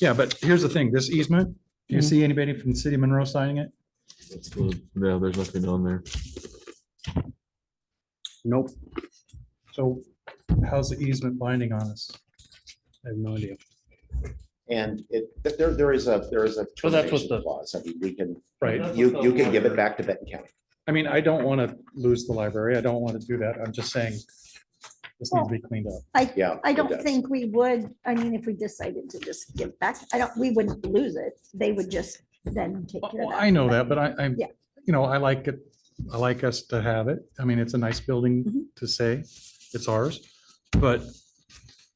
Yeah, but here's the thing, this easement, do you Mhm. see anybody from the city of Monroe signing it? No, there's nothing on there. Nope. So how's the easement binding on us? I have no idea. And it, th- there, there is a, there is a Well, that's what termination the- clause. I mean, we can, Right, you, you can give it back to Benton County. I mean, I don't want to lose the library, I don't want to do that, I'm just saying this needs to be cleaned up. I, Yeah. I it don't does. think we would, I mean, if we decided to just give back, I don't, we wouldn't lose it. They would just then take care of Well, that. Oh, I know that, but I, I, Yeah. you know, I like it, I like us to have it, I mean, it's a nice building Mhm. to say, it's ours, but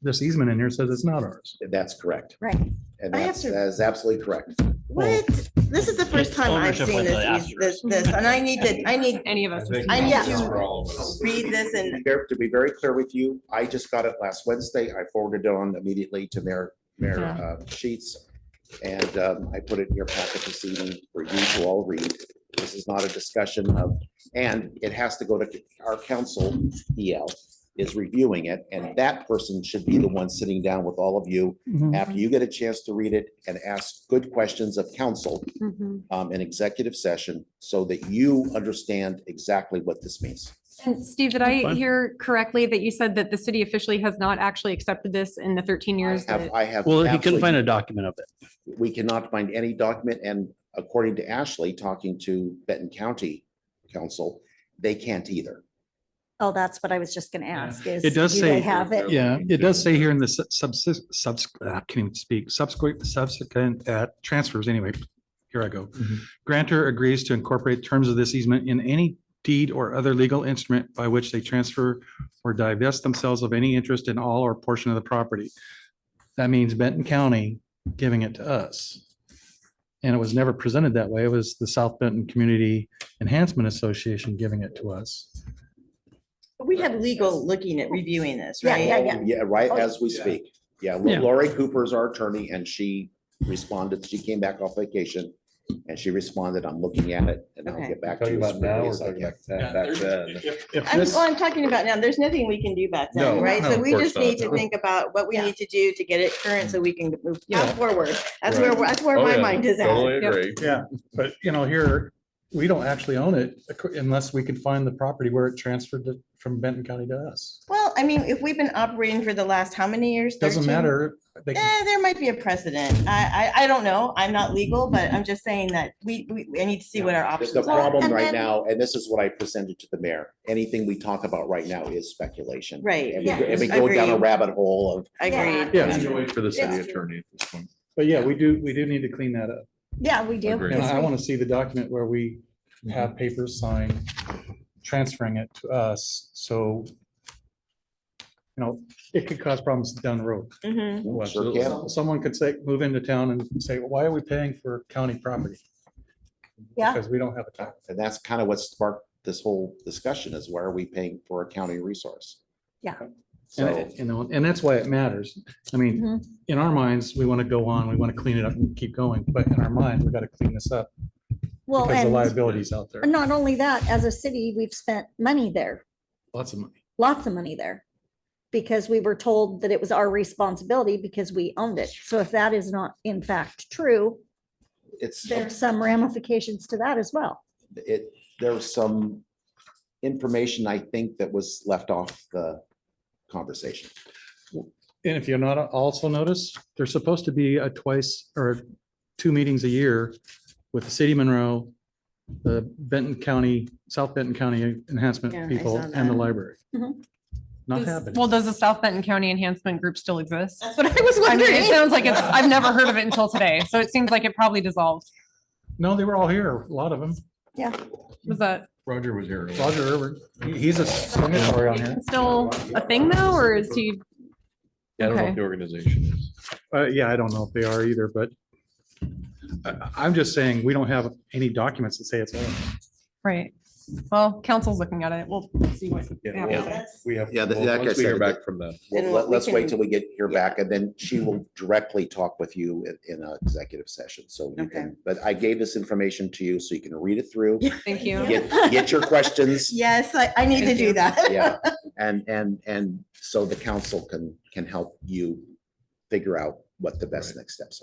this easement in here says it's not ours. That's correct. Right. And I have that's, to- that is absolutely correct. What? This is the first time I've ownership seen with the this, this, this, and I need to, I need Any of us. would I see need that. to read this and, Ver- To be very clear with you, I just got it last Wednesday. I forwarded it on immediately to Mayor, Mayor Yeah. uh, Sheets. And um, I put it in your packet this evening for you to all read. This is not a discussion of, and it has to go to our council, EL, is reviewing it. And that person should be the one sitting down with all of you mm-hmm. after you get a chance to read it and ask good questions of council Mhm. um, in executive session so that you understand exactly what this means. And Steve, did I Fine. hear correctly that you said that the city officially has not actually accepted this in the thirteen I years? have, that- I have. Well, he couldn't absolutely find a document of it. we cannot find any document, and according to Ashley, talking to Benton County Council, they can't either. Oh, that's what I was just gonna ask is. It does do they say- Have it. Yeah, it does say here in the subsist, subs, ah, I can't even speak, subsequent, subsequent, uh, transfers anyway. Here I go. Mhm. Grantor agrees to incorporate terms of this easement in any deed or other legal instrument by which they transfer or divest themselves of any interest in all or portion of the property. That means Benton County giving it to us. And it was never presented that way. It was the South Benton Community Enhancement Association giving it to us. we have legal looking at reviewing this, Yeah, right? yeah, yeah. Yeah, right Oh, as we speak. Yeah, Yeah. Lori Cooper is our attorney, and she responded, she came back off vacation, and she responded, I'm looking at it, and I'll Okay. get back to you. as quickly as I can." I'm, well, I'm talking about now, there's nothing we can do back then, No, right? no, So of we course just need not. to think about what we need to do to get it current so we can move Yeah. Oh, forward. That's where, that's where my mind is at. Yep. Yeah, but you know, here, we don't actually own it ac- unless we can find the property where it transferred to- from Benton County to us. Well, I mean, if we've been operating for the last how many years? Doesn't 13? matter. They can- Eh, there might be a precedent. I, I, I don't know. I'm not legal, but I'm just saying that we, we, I need to see what our The- options The are. problem And right then- now, and this is what I presented to the mayor, anything we talk about right now is speculation. Right, And we yeah. go- and we go down a Agreed. rabbit hole of, Agreed. Yeah, For the city Yes. attorney at this point. but yeah, we do, we do need to clean that up. Yeah, we do. Agreed. And I Yes, want to see the document where we have papers signed transferring it to us. So, you know, it could cause problems down the road. Mhm. Oh, sure absolutely. can. Someone could say, move into town and say, why are we paying for county property? Yeah. Because we don't have a tax. Uh, And that's kind of what sparked this whole discussion is why are we paying for a county resource? Yeah. And, So, it- you know, and that's why it matters. I mean, Mhm. in our minds, we want to go on, we want to clean it up and keep going, but in our mind, we got to clean this up Well, because the and liability's out there, not only that, as a city, we've spent money there, lots of money. lots of money there. Because we were told that it was our responsibility because we owned it. So if that is not in fact true, it's, there's some ramifications to that as well. it, there was some information, I think, that was left off the conversation. And if you're not also notice, there's supposed to be a twice or two meetings a year with the city of Monroe, the Benton County, South Benton County Yeah, I enhancement people saw and the that. library. Mhm. Not Does- happening. Well, does the South Benton County Enhancement Group still exist? That's what I was I mean, it wondering. sounds like it's, I've never heard of it until today, so it seems like it probably dissolved. No, they were all here, a lot of them. Was that Roger was here. earlier. Roger Irvin, he- he's a signatory on here. still a thing though, or is he? Yeah, I don't know Okay. if the organization is. Uh, yeah, I don't know if they are either, but I, I'm just saying, we don't have any documents that say it's. ours. Right. Well, council's looking at it. We'll see what Yeah. happens. We have. Yeah, that- well, like I Once we said, hear the- back from them. Well, Then let- we let's wait can- till we get your back and then she will directly talk with you in, in an executive session. So you Okay. can, but I gave this information to you so you can read it through, Thank you. get, get your questions. Yes, I, I need to do that. Yeah, and, and, and so the council can, can help you figure out what the best next steps are.